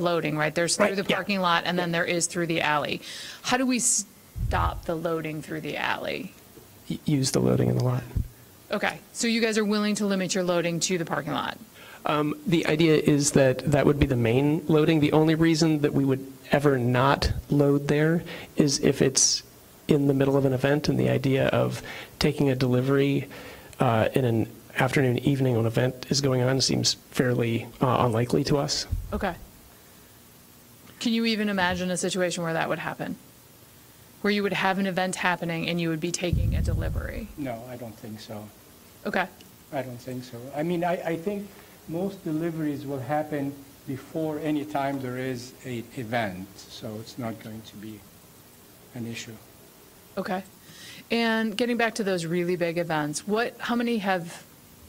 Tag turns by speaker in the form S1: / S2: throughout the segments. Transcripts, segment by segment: S1: loading, right? There's
S2: Right,
S1: through the
S2: yeah.
S1: parking lot, and then there is through the alley. How do we stop the loading through the alley?
S2: y- use the loading in the lot.
S1: Okay, so you guys are willing to limit your loading to the parking lot?
S2: Um, The idea is that that would be the main loading. The only reason that we would ever not load there is if it's in the middle of an event, and the idea of taking a delivery uh, in an afternoon, evening when an event is going on seems fairly uh, unlikely to us.
S1: Okay. Can you even imagine a situation where that would happen? Where you would have an event happening and you would be taking a delivery?
S3: No, I don't think so.
S1: Okay,
S3: I don't think so. I mean, I, I think most deliveries will happen before any time there is a event, so it's not going to be an issue.
S1: okay. And getting back to those really big events, what, how many have,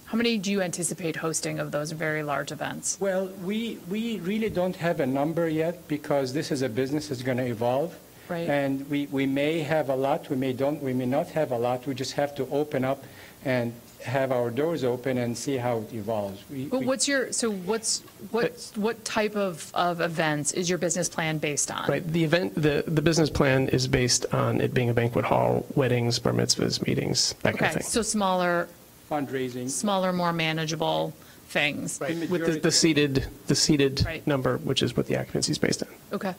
S1: how many do you anticipate hosting of those very large events?
S3: Well, we, we really don't have a number yet because this is a business that's going to evolve.
S1: Right.
S3: And we, we may have a lot, we may don't, we may not have a lot. We just have to open up and have our doors open and see how it evolves. We-
S1: But
S3: we-
S1: what's your, so what's, what, what type of, of events is your business plan based on?
S2: Right, the event, the, the business plan is based on it being a banquet hall, weddings, bar mitzvahs, meetings, that kind
S1: Okay,
S2: of
S1: so
S2: thing.
S1: smaller,
S3: Fundraising.
S1: smaller, more manageable things?
S2: With the-
S3: majority-
S2: the seated, the seated
S1: Right.
S2: number, which is what the occupancy is based on.
S1: Okay.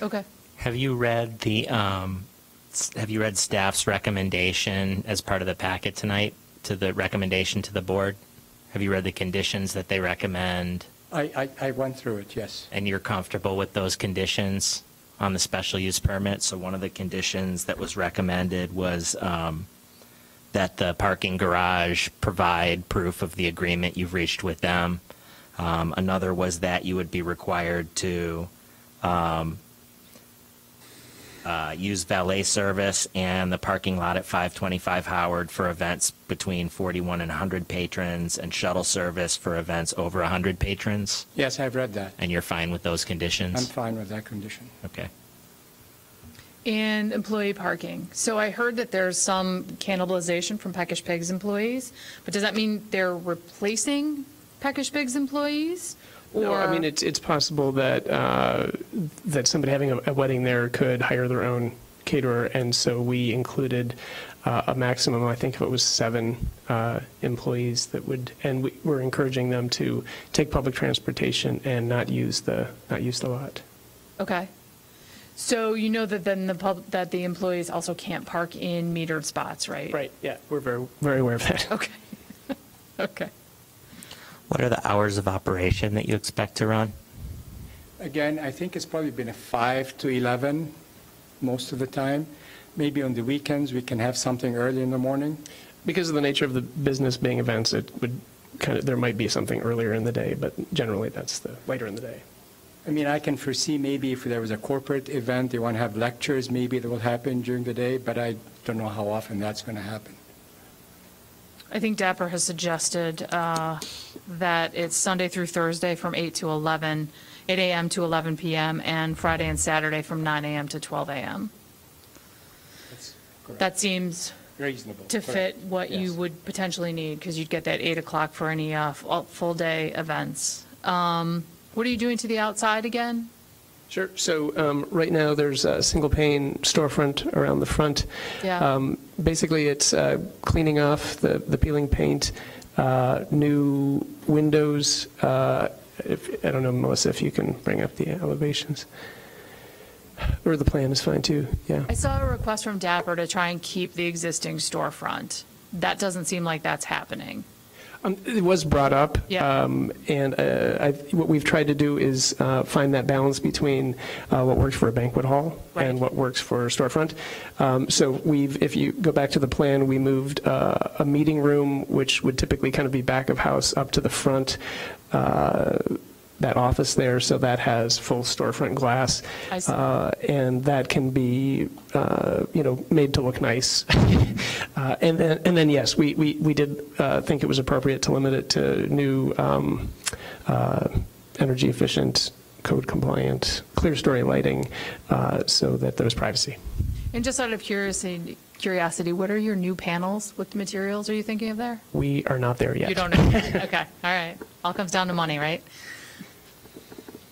S1: Okay.
S4: Have you read the, um, s- have you read staff's recommendation as part of the packet tonight to the recommendation to the board? Have you read the conditions that they recommend
S3: I, I, I went through it, yes.
S4: and you're comfortable with those conditions on the special use permit? So one of the conditions that was recommended was, um, that the parking garage provide proof of the agreement you've reached with them. Um, another was that you would be required to, um, uh, use valet service and the parking lot at 525 Howard for events between 41 and 100 patrons and shuttle service for events over 100 patrons.
S3: Yes, I've read that.
S4: And you're fine with those
S3: I'm
S4: conditions?
S3: fine with that condition.
S4: Okay.
S1: And employee parking. So I heard that there's some cannibalization from Peckish Pigs employees, but does that mean they're replacing Peckish Pigs employees?
S2: No, I
S1: Or-
S2: mean, it's, it's possible that, uh, that somebody having a- a wedding there could hire their own caterer, and so we included uh, a maximum, I think it was seven uh, employees that would, and we were encouraging them to take public transportation and not use the, not use the lot.
S1: Okay. So you know that then the pub, that the employees also can't park in metered spots, right?
S2: yeah, we're very, very aware of that.
S1: Okay. Okay.
S4: What are the hours of operation that you expect to run?
S3: Again, I think it's probably been a 5 to 11 most of the time. Maybe on the weekends, we can have something early in the morning.
S2: Because of the nature of the business being events, it would kind of, there might be something earlier in the day, but generally that's the, later in the day.
S3: I mean, I can foresee maybe if there was a corporate event, they want to have lectures, maybe that will happen during the day, but I don't know how often that's going to happen.
S1: I think Dapper has suggested uh, that it's Sunday through Thursday from 8 to 11, 8 AM to 11 PM, and Friday and Saturday from 9 AM to 12 AM.
S3: That's correct.
S1: That seems
S3: reasonable.
S1: to fit
S3: correct.
S1: what you
S3: Yes.
S1: would potentially need, because you'd get that 8 o'clock for any uh, f- all- full-day events. Um, What are you doing to the outside again?
S2: Sure. So um, right now, there's a single pane storefront around the front.
S1: Yeah.
S2: Um, Basically, it's uh, cleaning off the the peeling paint, uh, new windows. uh, if- I don't know, Melissa, if you can bring up the elevations. Or the plan is fine, too. Yeah.
S1: I saw a request from Dapper to try and keep the existing storefront. That doesn't seem like that's happening.
S2: Um, It was brought up.
S1: Yeah.
S2: um, And uh, I- what we've tried to do is uh, find that balance between uh, what works for a banquet hall and
S1: Right.
S2: what works for a storefront. Um, So we've, if you go back to the plan, we moved uh, a meeting room, which would typically kind of be back of house, up to the front, uh, that office there, so that has full storefront glass.
S1: I see.
S2: Uh, And that can be, uh, you know, made to look nice. Uh, And then, and then, yes, we, we we did uh, think it was appropriate to limit it to new um, uh, energy efficient, code compliant, clear story lighting, uh, so that there was privacy.
S1: And just out of curiosity, curiosity, what are your new panels? What materials are you thinking of there?
S2: We are not there yet.
S1: You don't know. Okay, all right. All comes down to money, right? Um,